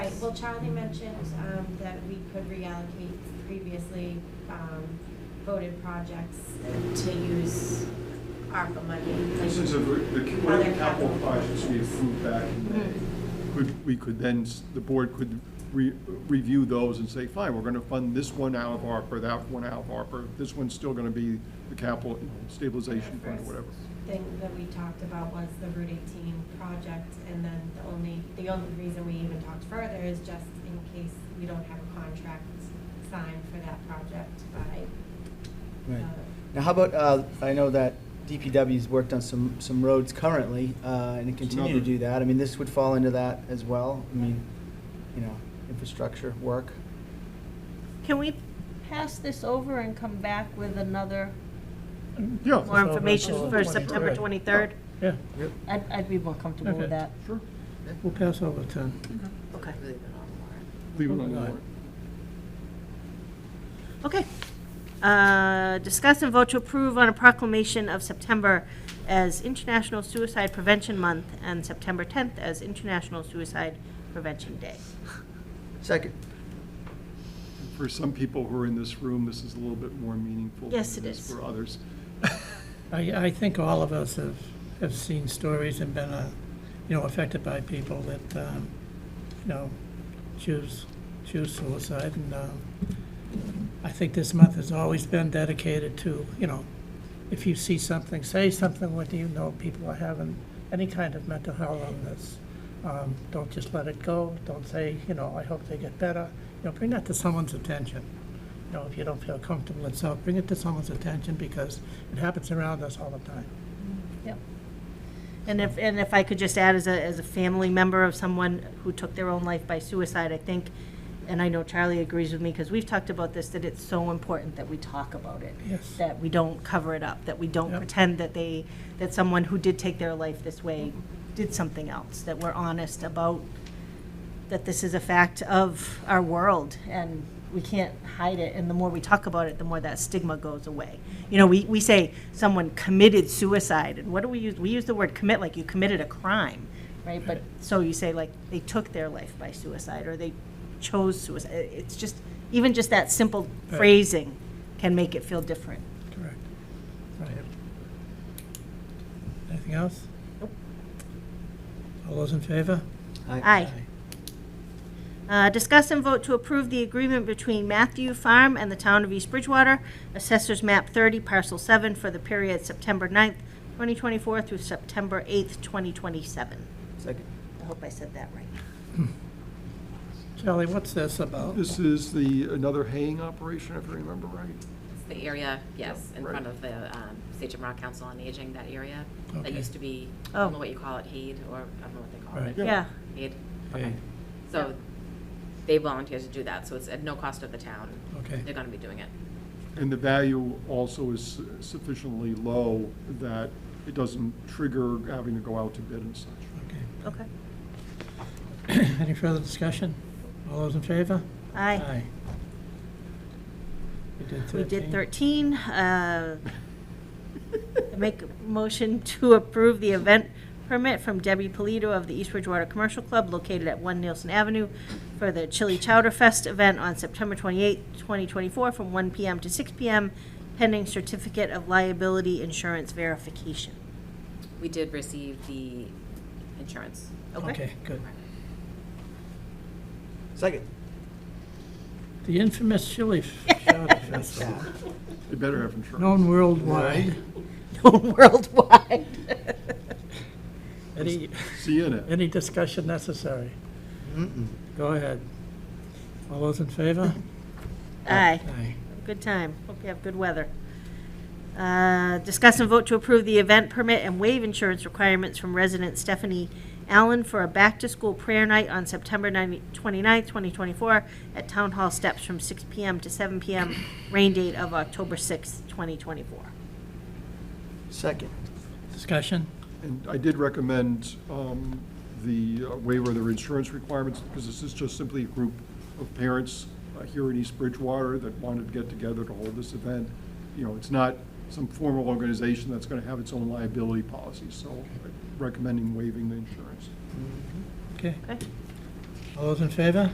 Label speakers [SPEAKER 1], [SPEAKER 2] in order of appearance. [SPEAKER 1] well, Charlie mentioned, um, that we could reallocate previously, um, voted projects to use ARPA money.
[SPEAKER 2] For instance, if we- the one of the capital projects we approved back in May,
[SPEAKER 3] Mm-hmm.
[SPEAKER 2] could, we could then, s- the board could re, review those and say, fine, we're gonna fund this one out of ARPA, that one out of ARPA, this one's still gonna be the capital stabilization fund or whatever.
[SPEAKER 1] Thing that we talked about was the Route eighteen project, and then the only, the only reason we even talked further is just in case we don't have a contract signed for that project by.
[SPEAKER 4] Right.
[SPEAKER 1] uh,
[SPEAKER 4] Now, how about, uh, I know that DPW's worked on some, some roads currently, uh, and they continue to
[SPEAKER 2] another-
[SPEAKER 4] do that. I mean, this would fall into that as well. I mean, you know, infrastructure work.
[SPEAKER 3] Can we pass this over and come back with another,
[SPEAKER 2] Yeah.
[SPEAKER 3] more
[SPEAKER 5] Over
[SPEAKER 3] information
[SPEAKER 5] until
[SPEAKER 3] for
[SPEAKER 5] the
[SPEAKER 3] September 23rd?
[SPEAKER 5] Yeah,
[SPEAKER 3] I'd, I'd be more comfortable with
[SPEAKER 5] Okay.
[SPEAKER 3] that.
[SPEAKER 2] Sure,
[SPEAKER 5] we'll pass over ten.
[SPEAKER 3] Okay.
[SPEAKER 2] leave it on the warrant.
[SPEAKER 3] Okay. Uh, Discuss and vote to approve on a proclamation of September as International Suicide Prevention Month and September 10th as International Suicide Prevention Day.
[SPEAKER 4] Second.
[SPEAKER 2] For some people who are in this room, this is a little bit more meaningful. than
[SPEAKER 3] Yes, it is.
[SPEAKER 2] For others.
[SPEAKER 5] I, I think all of us have, have seen stories and been, uh, you know, affected by people that, um, you know, choose, choose suicide. And, um, I think this month has always been dedicated to, you know, if you see something, say something, what do you know, people are having any kind of mental health illness. Um, don't just let it go. Don't say, you know, I hope they get better. You know, bring that to someone's attention. You know, if you don't feel comfortable itself, bring it to someone's attention because it happens around us all the time.
[SPEAKER 3] Yep. And if, and if I could just add, as a, as a family member of someone who took their own life by suicide, I think, and I know Charlie agrees with me, because we've talked about this, that it's so important that we talk about it.
[SPEAKER 5] Yes.
[SPEAKER 3] That we don't cover it up, that we don't
[SPEAKER 5] Yep.
[SPEAKER 3] pretend that they, that someone who did take their life this way did something else, that we're honest about, that this is a fact of our world, and we can't hide it, and the more we talk about it, the more that stigma goes away. You know, we, we say someone committed suicide, and what do we use? We use the word commit like you committed a crime, right? But, so you say like, they took their life by suicide, or they chose suicide. It's just, even just that simple
[SPEAKER 5] Right.
[SPEAKER 3] phrasing can make it feel different.
[SPEAKER 5] Correct. Right. Anything else?
[SPEAKER 3] Nope.
[SPEAKER 5] All those in favor?
[SPEAKER 3] Aye. Uh, Discuss and vote to approve the agreement between Matthew Farm and the Town of East Bridgewater, Assessors Map 30, Parcel 7, for the period September 9th, 2024 through September 8th, 2027.
[SPEAKER 4] Second.
[SPEAKER 3] I hope I said that right.
[SPEAKER 5] Charlie, what's this about?
[SPEAKER 2] This is the, another haying operation, if I remember right.
[SPEAKER 6] It's the area, yes, in
[SPEAKER 2] Right.
[SPEAKER 6] front of the um, Sachem Rock Council on Aging, that area. That
[SPEAKER 5] Okay.
[SPEAKER 6] used to be, I don't know
[SPEAKER 3] Oh.
[SPEAKER 6] what you call it, Heed, or I don't know what they call
[SPEAKER 5] Right.
[SPEAKER 6] it.
[SPEAKER 2] Yeah.
[SPEAKER 3] Yeah,
[SPEAKER 6] Heed.
[SPEAKER 5] Hey,
[SPEAKER 6] So they volunteered to do that, so it's at no cost of the town.
[SPEAKER 5] Okay.
[SPEAKER 6] They're going to be doing it.
[SPEAKER 2] And the value also is sufficiently low that it doesn't trigger having to go out to bid and such.
[SPEAKER 5] Okay.
[SPEAKER 3] okay.
[SPEAKER 5] Any further discussion? All those in favor?
[SPEAKER 3] Aye.
[SPEAKER 5] We did
[SPEAKER 3] We did 13.
[SPEAKER 5] 13.
[SPEAKER 3] uh, Make a motion to approve the event permit from Debbie Polito of the East Bridgewater Commercial Club located at 1 Nielsen Avenue for the Chili Chowder Fest event on September 28, 2024, from 1 PM to 6 PM, pending certificate of liability insurance verification.
[SPEAKER 6] We did receive the insurance. Oh,
[SPEAKER 5] Okay, good.
[SPEAKER 4] Second.
[SPEAKER 5] The infamous chili chowder festival,
[SPEAKER 2] They better have insurance.
[SPEAKER 5] known worldwide.
[SPEAKER 3] Worldwide.
[SPEAKER 5] Any,
[SPEAKER 2] See you in it.
[SPEAKER 5] any discussion necessary?
[SPEAKER 4] Mm-mm.
[SPEAKER 5] Go ahead. All those in favor?
[SPEAKER 3] Aye.
[SPEAKER 5] Aye.
[SPEAKER 3] Good time. Hope you have good weather. Uh, Discuss and vote to approve the event permit and waive insurance requirements from resident Stephanie Allen for a back-to-school prayer night on September 9 29th, 2024, at Town Hall steps from 6 PM to 7 PM, rain date of October 6th, 2024.
[SPEAKER 4] Second.
[SPEAKER 5] Discussion?
[SPEAKER 2] And I did recommend um, the uh, waiver of their insurance requirements, because this is just simply a group of parents uh, here in East Bridgewater that wanted to get together to hold this event. You know, it's not some formal organization that's going to have its own liability policy, so
[SPEAKER 4] Mm-hmm.
[SPEAKER 2] recommending waiving the insurance.
[SPEAKER 5] Okay.
[SPEAKER 3] Okay?
[SPEAKER 5] All those in favor?